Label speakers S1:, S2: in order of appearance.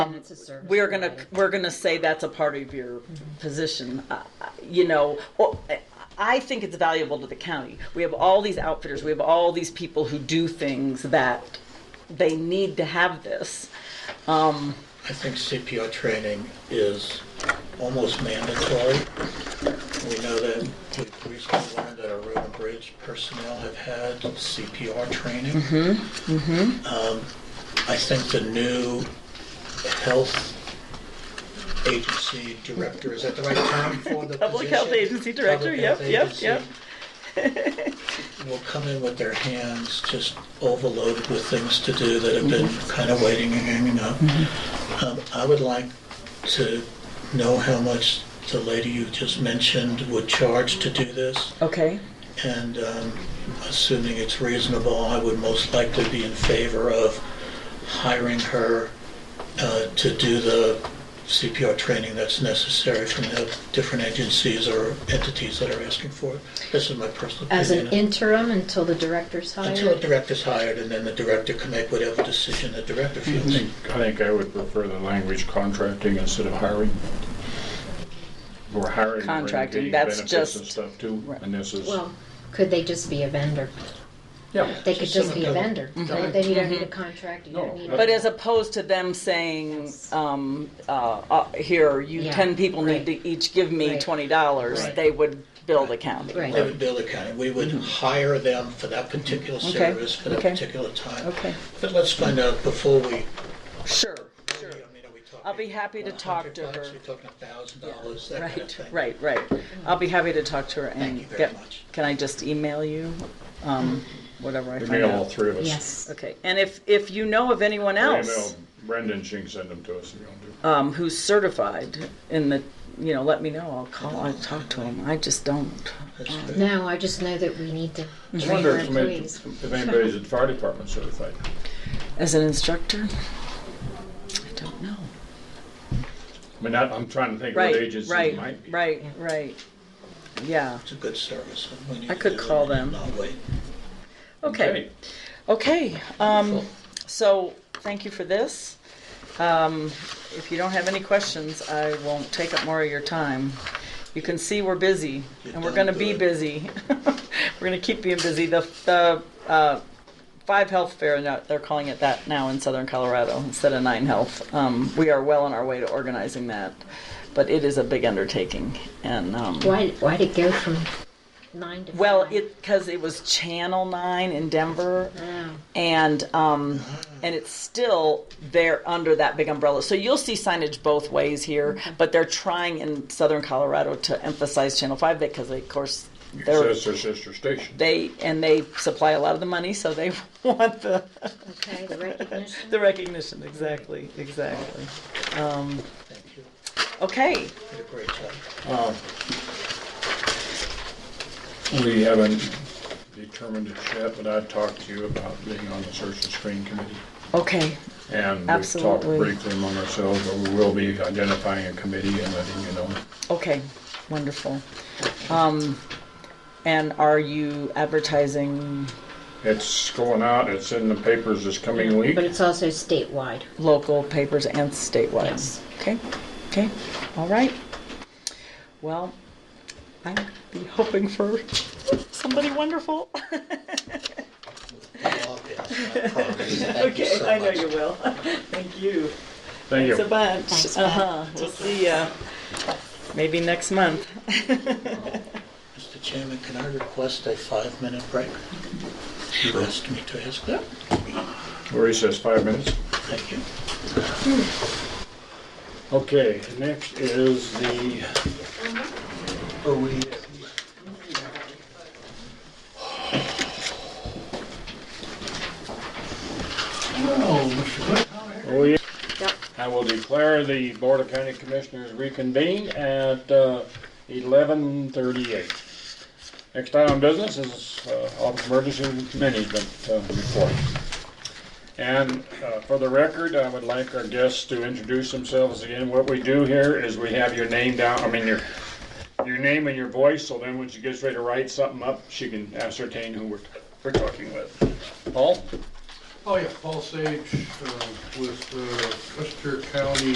S1: And
S2: um,
S1: it's a service
S2: we're gonna,
S1: provided.
S2: we're gonna say that's a part of your position, uh, you know, or, I think it's valuable to the county. We have all these outfitters, we have all these people who do things that they need to have this. Um,
S3: I think CPR training is almost mandatory. We know that we've recently learned that our road and bridge personnel have had CPR training. Um, I think the new health agency director, is that the right term for the position?
S2: Public Health Agency Director,
S3: Public
S2: yep,
S3: Health
S2: yep, yep.
S3: Agency Will come in with their hands just overloaded with things to do that have been
S2: Mm-hmm.
S3: kind of waiting and hanging up. Um, I would like to know how much the lady you just mentioned would charge to do this,
S2: okay,
S3: and um, assuming it's reasonable, I would most likely be in favor of hiring her uh, to do the CPR training that's necessary from the different agencies or entities that are asking for it. This is my personal opinion.
S1: As an interim until the director's
S3: Until a
S1: hired.
S3: director's hired, and then the director can make whatever decision the director
S4: I
S3: feels.
S4: think, I think I would prefer the language contracting instead of hiring. Or hiring. we're
S2: Contracting,
S4: getting
S2: that's
S4: benefits and
S2: just-
S4: Stuff too,
S2: right.
S4: and this is,
S1: Well, could they just be a vendor?
S4: yeah.
S1: They could just be a vendor.
S3: Mhm.
S1: Then you don't need a contract, you
S4: No,
S1: don't need.
S4: but
S2: but as opposed to them saying, um, uh, uh, here, you
S1: Yeah,
S2: ten people need
S1: right.
S2: to each give me
S1: Right.
S2: twenty dollars,
S4: Right.
S2: they would bill the county.
S1: Right.
S3: They would bill the county. We would hire them for that particular service, for that
S2: Mm-hmm. okay,
S3: particular time.
S2: okay.
S3: But let's find out before we,
S2: Sure,
S3: I
S2: sure.
S3: mean, are we talking?
S2: I'll be happy to talk to
S3: 100 bucks?
S2: her.
S3: We're talking a thousand dollars, that kind of
S2: Right,
S3: thing.
S2: right, right. I'll be happy to talk to her and
S3: you very
S2: get,
S3: much.
S2: can I just email you? Um, whatever I find
S4: Email all
S2: out.
S4: three of us.
S1: Yes.
S2: Okay, and if, if you know of anyone else,
S4: Email Brendan, she can send them to us if you want to.
S2: um, who's certified in the, you know, let me know. I'll call, I'll talk to him. I just don't.
S3: That's good.
S1: No, I just know that we need to
S4: I
S1: train
S4: wonder
S1: our
S4: if somebody-
S1: employees.
S4: if anybody's at the fire department certified.
S2: As an instructor, I don't know.
S4: I mean, I- I'm trying to think what
S2: Right,
S4: agency it
S2: right,
S4: might be.
S2: right, right. Yeah,
S3: It's a good service. and we need
S2: I
S3: to
S2: could
S3: do it
S2: call
S3: and
S2: them.
S3: Not wait.
S2: okay, okay. Um,
S3: Wonderful.
S2: so, thank you for this. Um, if you don't have any questions, I won't take up more of your time. You can see we're busy,
S3: You've
S2: and we're
S3: done
S2: gonna be
S3: good.
S2: busy. We're gonna keep being busy. The, the, uh, Five Health Fair, now- they're calling it that now in Southern Colorado instead of Nine Health. Um, we are well on our way to organizing that, but it is a big undertaking, and, um.
S1: Why, why'd it go from nine to five?
S2: Well, it because it was Channel Nine in Denver,
S1: Oh.
S2: and um, and it's still there under that big umbrella. So you'll see signage both ways here, but they're trying in Southern Colorado to emphasize Channel Five because, they, of course,
S4: So
S2: they're
S4: it's their sister station.
S2: they and they supply a lot of the money, so they want the
S1: Okay, the recognition.
S2: the recognition. Exactly, exactly. Um,
S3: Thank you.
S2: okay,
S3: You Did a great job.
S4: We haven't determined it yet, but I talked to you about being on the search and screen committee.
S2: okay,
S4: And we've talked
S2: Absolutely.
S4: briefly among ourselves, but we will be identifying a committee and letting you know.
S2: okay. Wonderful. Um, and are you advertising?
S4: It's going out, it's in the papers this coming week.
S1: But it's also statewide.
S2: local papers and statewide.
S1: Yes.
S2: Okay, okay, all right. Well, I'd be hoping for somebody wonderful.
S3: I'll pass, I promise. Thank you
S2: Okay,
S3: so
S2: I know
S3: much.
S2: you will. Thank you.
S4: Thank
S2: It's a
S4: you.
S2: bunch.
S1: Thanks,
S2: Uh-huh, we'll see ya. Maybe next month.
S3: Mr. Chairman, can I request a five-minute break? You asked me to ask that.
S4: Marie says five minutes.
S3: Thank you.
S4: Okay, next is the
S3: Are we, uh,
S4: Oh, yeah. I will declare the Board of County Commissioners reconvened at uh, 11:38. Next item of business is uh, of emergency management uh, report. And uh, for the record, I would like our guests to introduce themselves again. What we do here is we have your name down, I mean, your, your name and your voice, so then when she gets ready to write something up, she can ascertain who we're, we're talking with. Paul? Oh, yeah, Paul Sage uh, with uh, Westchester County